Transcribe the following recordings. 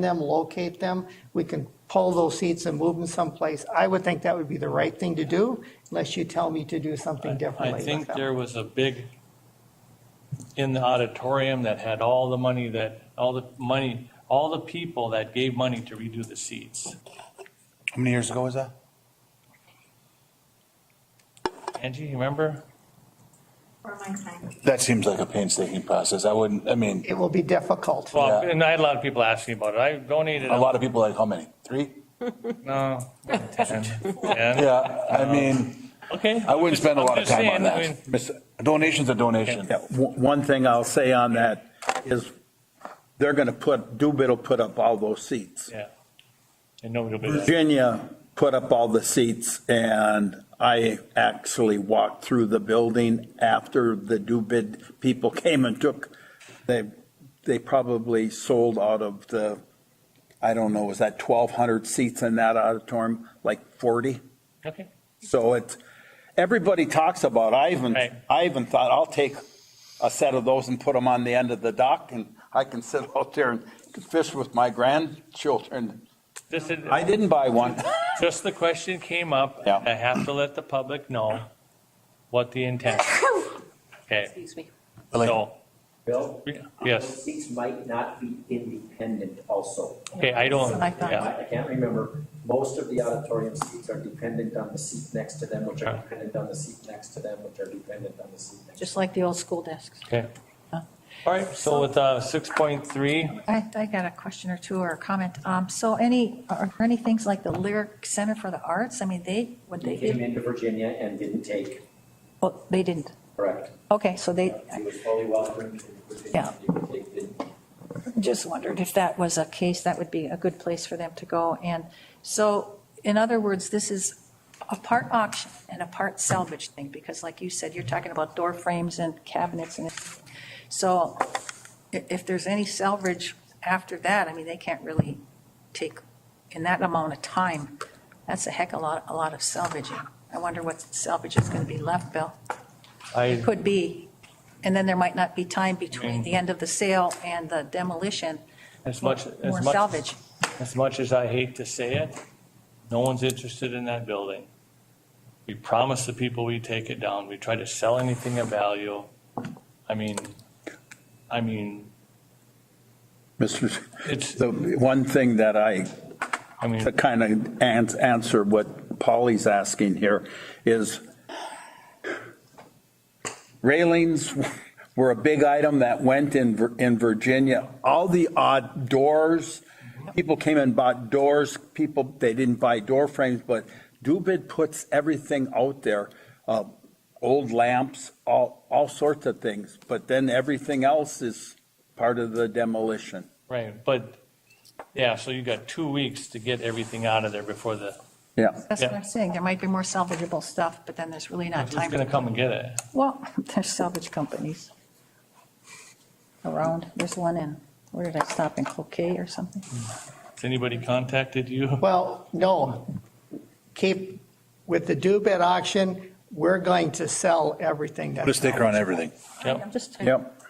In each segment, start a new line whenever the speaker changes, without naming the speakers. them, locate them. We can pull those seats and move them someplace. I would think that would be the right thing to do unless you tell me to do something differently
I
with
think
them.
there was a big, in the auditorium that had all the money that, all the money, all the people that gave money to redo the seats.
How many years ago was that?
Angie, you remember?
For my time.
That seems like a painstaking process. I wouldn't, I mean,
It will be difficult.
Well,
Yeah.
and I had a lot of people asking about it. I donated,
a lot of people like, how many? Three?
no, 10, 10.
Yeah, I mean,
Okay.
I wouldn't spend a
I'm
lot of
just
time
saying,
on
I mean,
that. Miss- a Donation's a donation.
Yeah, o- One thing I'll say on that is they're going to put, Doobit will put up all those seats.
Yeah. And nobody will be there.
Virginia put up all the seats and I actually walked through the building after the Doobit people came and took, they, they probably sold out of the, I don't know, was that 1,200 seats in that auditorium, like 40?
Okay.
So it's, everybody talks about, I even,
Right.
I even thought, I'll take a set of those and put them on the end of the dock and I can sit out there and fish with my grandchildren.
This is,
I didn't buy one.
just the question came up.
Yeah.
I have to let the public know what the intent. is. Okay,
Excuse me.
Like,
so,
Bill?
yes.
Seats might not be independent also.
Okay, I don't,
I thought-
yeah.
I I can't remember, most of the auditorium seats are dependent on the seat next to them, which are
Okay.
dependent on the seat next to them, which are dependent on the seat next to them.
Just like the old school desks.
Okay. All right, so with uh, 6.3,
I, I got a question or two or a comment. Um, So any, are there any things like the Lyric Center for the Arts? I mean, they, would
They
they,
came
give-
into Virginia and didn't take,
oh, they didn't.
correct?
Okay, so they,
It was fully welcomed in Virginia.
Yeah.
They didn't
just wondered if that was a case, that would be a good place for them to go. And so, in other words, this is a part auction and a part salvage thing, because like you said, you're talking about door frames and cabinets and, so i- if there's any salvage after that, I mean, they can't really take, in that amount of time, that's a heck of a lot, a lot of salvaging. I wonder what salvage is going to be left, Bill.
I,
Could be. And then there might not be time between the end of the sale and the demolition.
as much,
More
as much,
salvage.
as much as I hate to say it, no one's interested in that building. We promise the people we take it down, we try to sell anything of value. I mean, I mean,
Mr.,
it's,
the one thing that I
I mean,
to kind of ans- answer what Polly's asking here is railings were a big item that went in, Vir- in Virginia. All the odd doors, people came and bought doors, people, they didn't buy door frames, but Dubid puts everything out there. uh, Old lamps, all, all sorts of things, but then everything else is part of the demolition.
right, but, yeah, so you got two weeks to get everything out of there before the,
Yeah.
That's what
Yeah.
I'm saying. There might be more salvageable stuff, but then there's really not
who's
time.
gonna come and get it?
Well, there's salvage companies around. There's one in, where did I stop, in Cloquet or something?
Has anybody contacted you?
Well, no, keep, with the Dubit auction, we're going to sell everything
Put a
that's.
sticker on everything.
Yep.
I'm just.
Yep.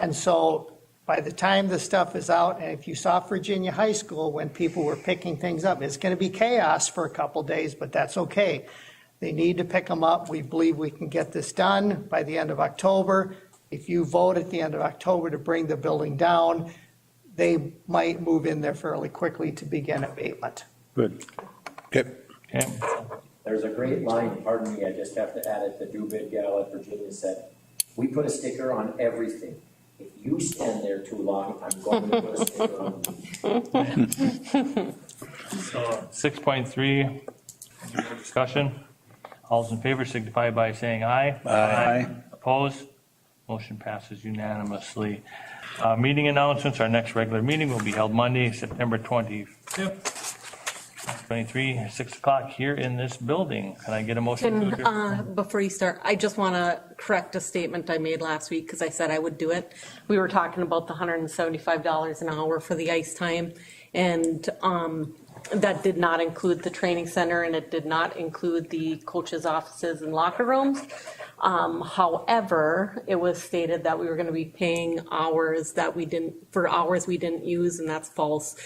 And so by the time the stuff is out, and if you saw Virginia High School when people were picking things up, it's going to be chaos for a couple days, but that's okay. They need to pick them up. We believe we can get this done by the end of October. If you vote at the end of October to bring the building down, they might move in there fairly quickly to begin abatement.
Good.
Okay.
Okay.
There's a great line, pardon me, I just have to add it, the Dubid gal at Virginia said, we put a sticker on everything. If you stand there too long, I'm going to put a sticker on you.
So, 6.3, discussion. All those in favor signify by saying aye. Opposed? Motion passes unanimously. Uh, Meeting announcements, our next regular meeting will be held Monday, September 25th, 23, 6 o'clock here in this building. Can I get a motion? to
Can,
adjourn?
uh, before you start, I just want to correct a statement I made last week because I said I would do it. We were talking about the $175 an hour for the ice time, and um, that did not include the training center, and it did not include the coaches' offices and locker rooms. Um, However, it was stated that we were going to be paying hours that we didn't, for hours we didn't use, and that's false.